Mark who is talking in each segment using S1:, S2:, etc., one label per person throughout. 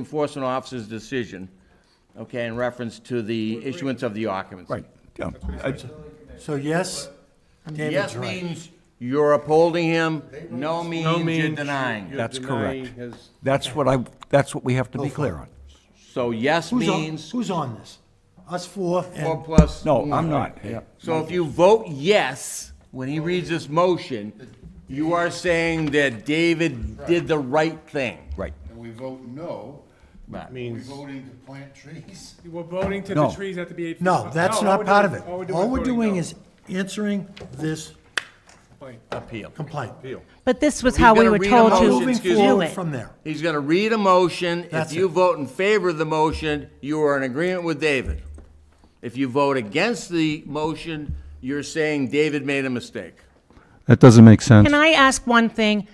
S1: enforcement officer's decision, okay, in reference to the issuance of the occupancy.
S2: Right, yeah.
S3: So yes, David's
S1: Yes
S3: right.
S1: means you're upholding him, no means you're denying.
S2: That's correct. That's what I, that's what we have to be clear on.
S1: So yes
S3: Who's on,
S1: means
S3: who's on this? Us four
S1: four
S3: and,
S1: plus.
S2: No, I'm
S1: one.
S2: not. Yeah.
S1: So if you vote yes, when he reads this motion, you are saying that David did the right thing.
S2: Right.
S4: and we vote no,
S1: Right.
S4: we're voting to plant trees.
S5: We're voting to the
S2: No.
S5: trees have to be eight feet.
S3: no,
S5: apart.
S3: that's
S5: all
S3: not
S5: we're
S3: part of
S5: doing-
S3: it. All we're
S5: voting
S3: doing
S5: no.
S3: is answering this
S5: Fine.
S1: Appeal.
S3: complaint.
S6: But this was how we
S1: gonna
S6: were
S1: read a
S6: told
S1: motion,
S6: to
S3: Moving
S1: excuse
S6: do
S3: forward
S6: it.
S3: from there.
S1: He's gonna read a motion. If
S3: That's
S1: you
S3: it.
S1: vote in favor of the motion, you are in agreement with David. If you vote against the motion, you're saying David made a mistake.
S7: That doesn't make sense.
S6: Can I ask one thing?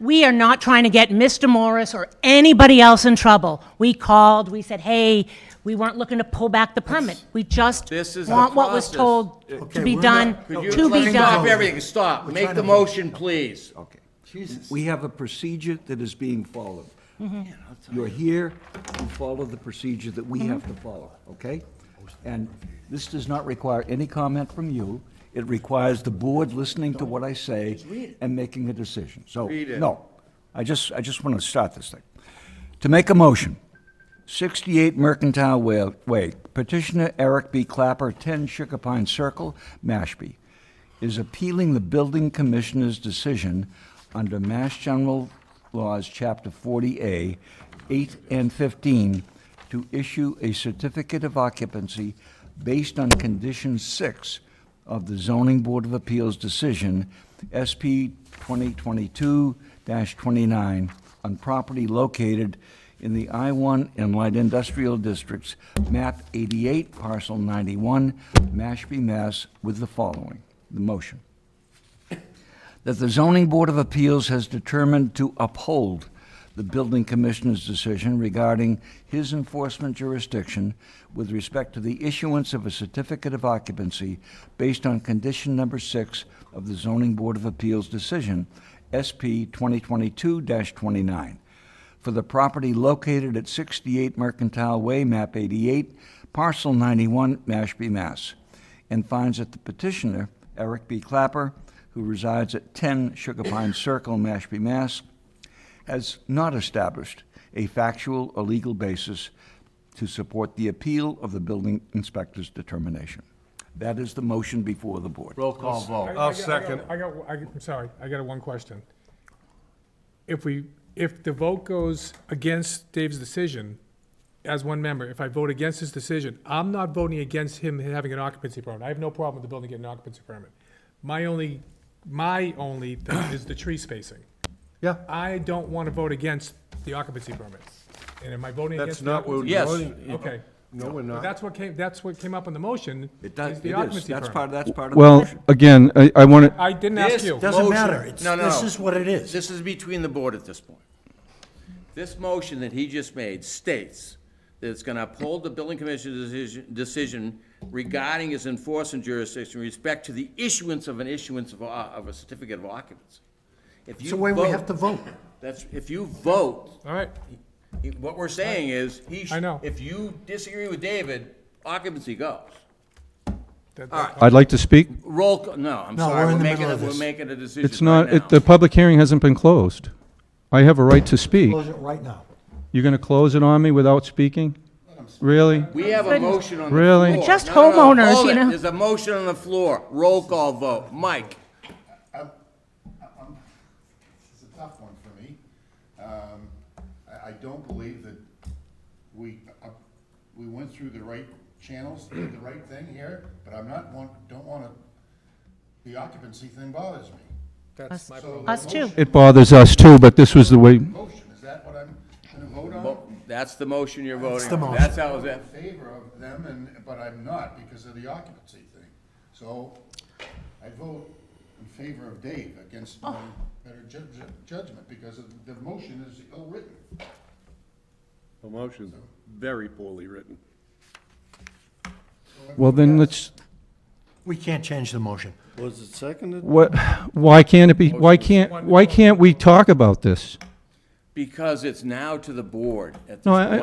S6: We are not trying to get Mr. Morris or anybody else in trouble. We called, we said, hey, we weren't looking to pull back the permit. We just
S1: This is the
S6: want what was
S1: process. Uh,
S6: told
S3: Okay,
S6: to be
S3: we're
S6: done,
S3: not-
S1: Could you
S6: to be
S1: Stop
S6: done.
S1: everything, stop. Make
S3: trying
S1: the
S3: to vote.
S1: motion, please.
S2: Okay.
S3: Jesus.
S2: We have a procedure that is being followed. You're here, you follow the procedure that we have to follow, okay? And this does not require any comment from you. It requires the board listening to what I say and making a decision. So,
S1: Read it.
S2: no, I just, I just want to start this thing. To make a motion, 68 Mercantile Wa- Way, petitioner Eric B. Clapper, 10 Sugar Pine Circle, Mashpee, is appealing the building commissioner's decision under Mass General Laws, Chapter 40A, 8 and 15, to issue a certificate of occupancy based on Condition 6 of the Zoning Board of Appeals decision, SP 2022-29, on property located in the I-1 and Light Industrial Districts, map 88, parcel 91, Mashpee, Mass, with the following, the motion. That the zoning board of appeals has determined to uphold the building commissioner's decision regarding his enforcement jurisdiction with respect to the issuance of a certificate of occupancy based on condition number six of the zoning board of appeals decision, SP 2022-29 for the property located at 68 Mercantile Way, map 88, parcel 91, Mashpee, Mass, and finds that the petitioner, Eric B. Clapper, who resides at 10 Sugar Pine Circle, Mashpee, Mass, has not established a factual or legal basis to support the appeal of the building inspector's determination. That is the motion before the board.
S1: Roll call
S5: I- I
S1: vote.
S5: got- I got- I got, I got- I'm sorry, I got one question. If we, if the vote goes against Dave's decision, as one member, if I vote against his decision, I'm not voting against him having an occupancy permit. I have no problem with the building getting an occupancy permit. My only, my only thing is the tree spacing.
S8: Yeah.
S5: I don't want to vote against the occupancy permit. And am I voting
S8: That's
S5: against the
S8: not what
S5: occupancy?
S8: we're
S1: Yes.
S8: voting.
S5: Okay.
S8: No, we're
S5: But
S8: not.
S5: that's what came, that's what came up in the motion.
S2: It does,
S5: is
S2: it
S5: the
S2: is,
S5: occupancy
S2: that's
S5: permit.
S2: part, that's part of the
S7: Well,
S2: motion.
S7: again, I, I want to,
S5: I didn't ask you.
S3: Doesn't
S1: Motion.
S3: matter. It's-
S1: No, no,
S3: this
S1: no.
S3: is what it is.
S1: This is between the board at this point. This motion that he just made states that it's gonna uphold the building commissioner's decision- decision regarding his enforcement jurisdiction with respect to the issuance of an issuance of, a- of a certificate of occupancy. If you
S3: It's the way we have to
S1: vote-
S3: vote.
S1: That's, if you vote,
S5: All right.
S1: he- what we're saying is, he. sh-
S5: I know.
S1: If you disagree with David, occupancy goes.
S5: That-
S7: I'd like to speak.
S1: Roll, ca- no, I'm
S3: No,
S1: sorry,
S3: we're in
S1: we're
S3: the
S1: making,
S3: middle
S1: a-
S3: of
S1: we're
S3: this.
S1: making a decision
S7: It's not,
S1: right
S7: it-
S1: now.
S7: the public hearing hasn't been closed. I have a right to speak.
S3: Close it right now.
S7: You're going to close it on me without speaking? Really?
S1: We have a motion on the floor.
S7: Really?
S6: They're just
S1: No, no, no,
S6: homeowners,
S1: hold
S6: you
S1: it.
S6: know.
S1: There's a motion on the floor, roll call vote, Mike,
S4: This is a tough one for me. Um, I, I don't believe that we, uh, we went through the right channels, did the right thing here, but I'm not want, don't wanna, the occupancy thing bothers me.
S5: That's my problem.
S6: Us too.
S7: It bothers us too, but this was the way,
S4: Motion, is that what I'm gonna vote
S1: Vote.
S4: on?
S1: Oh, that's the motion you're voting
S3: the
S1: on,
S3: motion.
S1: that's how it's at.
S4: In favor of them and, but I'm not because of the occupancy thing. So I vote in favor of Dave against my better ju- ju- judgment because of- the motion is ill-written.
S8: The motion's very poorly written.
S7: well, then let's,
S3: We can't change the motion.
S8: Was it seconded?
S7: what, why can't it be, why can't, why can't we talk about this?
S1: because it's now to the board at this
S7: No, I-
S1: point.
S7: I-